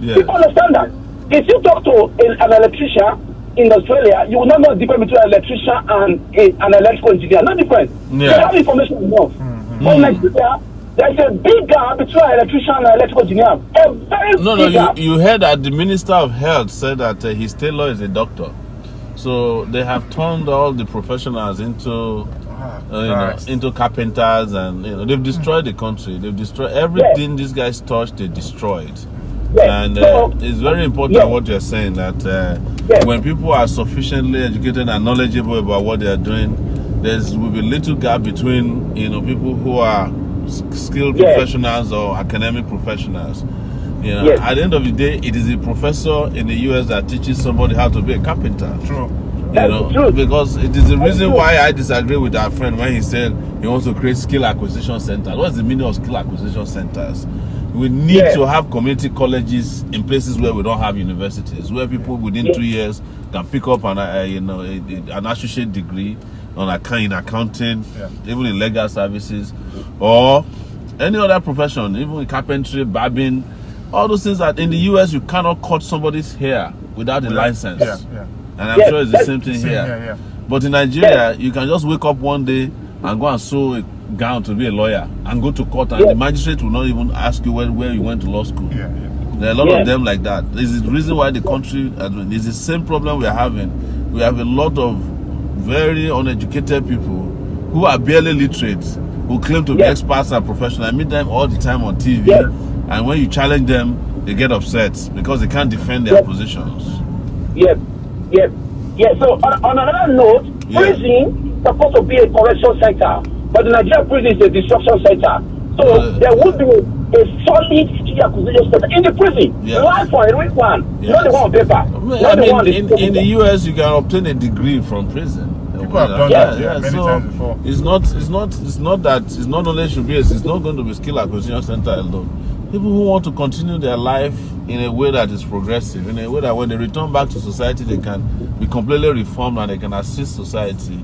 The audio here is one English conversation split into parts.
Yeah. People understand that. If you talk to a, an electrician in Australia, you will not know the difference between an electrician and a, an electrical engineer. No difference. They Yeah. Mm-hmm. have information enough. But in Nigeria, there's a big gap between an electrician and an electrical engineer. A very No, no, big you, gap. you heard that the Minister of Health said that uh, his tailor is a doctor. So they have turned all the professionals into, uh, you know, Christ. into carpenters, and you know they've destroyed the country. They've destroyed everything these guys touched. They destroyed, Yes. and uh, So- it's very important Yes. what you're saying that uh, Yes. when people are sufficiently educated and knowledgeable about what they are doing, there's will be little gap between you know people who are s- skilled Yes. professionals or academic professionals. You know, Yes. at the end of the day, it is a professor in the US that teaches somebody how to be a carpenter. True. You That's know, the truth. because it is the reason true. why I disagree with our friend when he said he wants to create skill acquisition centers. What's the meaning of skill acquisition centers? We need Yeah. to have community colleges in places where we don't have universities, where people within Yeah. two years can pick up an, uh, you know, a, a- an associate degree on account, in accounting, Yeah. even in legal services, or any other profession, even in carpentry, barbing, all those things that in the US you cannot cut somebody's hair without a license. Yeah, yeah. And I'm Yes, sure it's the yes. same thing Same here. here, yeah. But in Nigeria, you can just wake up one day and go and sew a gown to be a lawyer and go to court, and Yes. the magistrate will not even ask you where, where you went to law school. Yeah, yeah. There are a lot of Yes. them like that. This is the reason why the country is the same problem we're having. We have a lot of very uneducated people who are barely literate, who claim to be Yes. experts and professionals. I meet them all the time on TV, Yes. and when you challenge them, they get upset because they can't defend their Yes. positions. Yes, yes, yes. So on, on another note, Yeah. prison is supposed to be a correction center, but the Nigerian prison is a destruction center. So Uh, there would be a solid skill acquisition center in the prison. Yeah. Live for a real one, Yes. not the one on paper. Well, not I the one on mean, the in, paper. in the US, you can obtain a degree from prison. People have done that, yeah, many so times before. It's not, it's not, it's not that. It's not only should be. It's not going to be skill acquisition center alone. People who want to continue their life in a way that is progressive, in a way that when they return back to society, they can be completely reformed and they can assist society.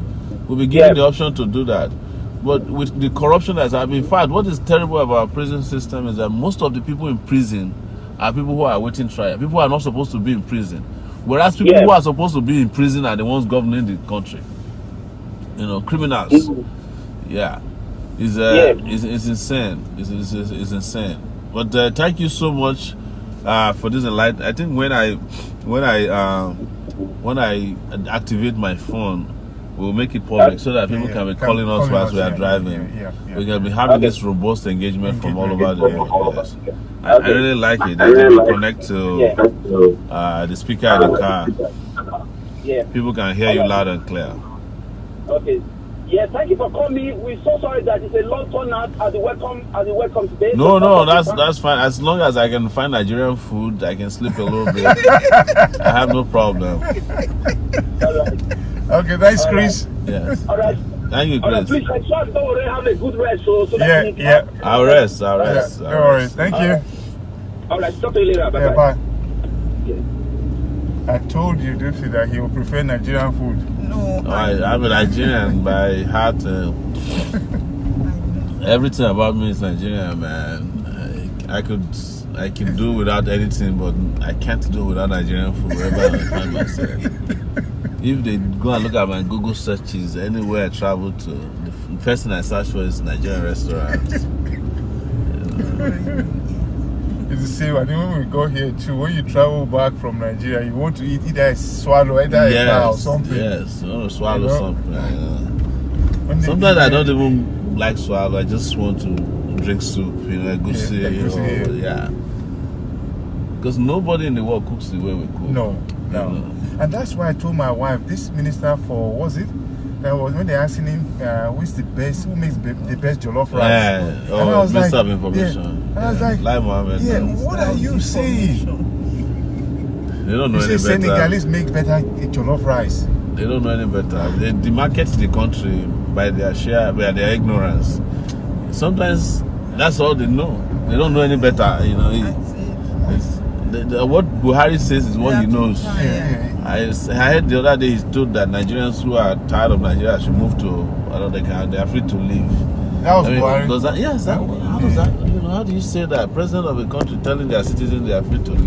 We'll be given Yes. the option to do that. But with the corruption that's happening, in fact, what is terrible about our prison system is that most of the people in prison are people who are waiting trial. People who are not supposed to be in prison. Whereas people Yes. who are supposed to be in prison are the ones governing the country. You know, criminals. Mhm. Yeah. It's, uh, Yeah. it's, it's insane. It's, it's, it's, it's insane. But uh, thank you so much uh, for this enlightenment. I think when I when I um, when I activate my phone, we'll make it public so that people Yeah, can be can- calling us calling whilst us, we are yeah, driving. yeah, yeah, yeah. we can be having Okay. this robust engagement from all over Engagement, the yeah. world. Yes. I, I Okay. really like it. I I really think we like it. connect Yeah. to uh, the speaker in the car. Yeah. People can hear you loud and clear. Okay. Yeah, thank you for coming. We're so sorry that it's a long turnout at the welcome at the welcome today. No, So- no, that's that's fine. As long as I can find Nigerian food, I can sleep a little bit. I have no problem. all right. Okay, thanks, Chris. Yes. All right. Thank you, All right, Chris. please make sure don't worry, have a good rest so, so Yeah, that you can- yeah. I'll rest. I'll Yeah, rest. no I'll rest. worries. Thank you. All right, talk to you later. Bye Yeah, bye. bye. I told you, Dipsy, that he will prefer Nigerian food. Oh, I, I'm a Nigerian by heart. Uh, everything about me is Nigerian, man. I, I could, I can do without anything, but I can't do without Nigerian food wherever I find myself. If they go and look at my Google searches anywhere I travel to, the f- first thing I search for is Nigerian restaurants. It's the same. I think when we got here too, when you travel back from Nigeria, you want to eat either a swallow, either a cow or yes, something. yes. I want to swallow You know? something. yeah. When they Sometimes eat I it- don't even like swallow. I just want to drink soup, you know, go Yeah, see, you egusi, know, yeah. Because nobody in the world cooks the way we cook. No, no. No. And that's why I told my wife, this minister for, was it? That was when they asking him, uh, who's the best, who makes be- the best jollof rice? Yeah. And I Oh, was mix like- up information. Yeah. And I was like, like Mohammed. yeah, no. what are you saying? They don't know You any say better. Senegalese make better jollof rice. They don't know any better. They demarket the country by their share, by their ignorance. Sometimes that's all they know. They don't know any better. You know, it, it's, the, the, what Buhari says is what he knows. Yeah, yeah, I, s- I heard the other day he told that Nigerians who are tired of Nigeria should move to another country. They are free to leave. That was I mean, Buhari. does that, yes, that, how does that? You know, how do you say that? President of a country telling their citizens they are free to leave.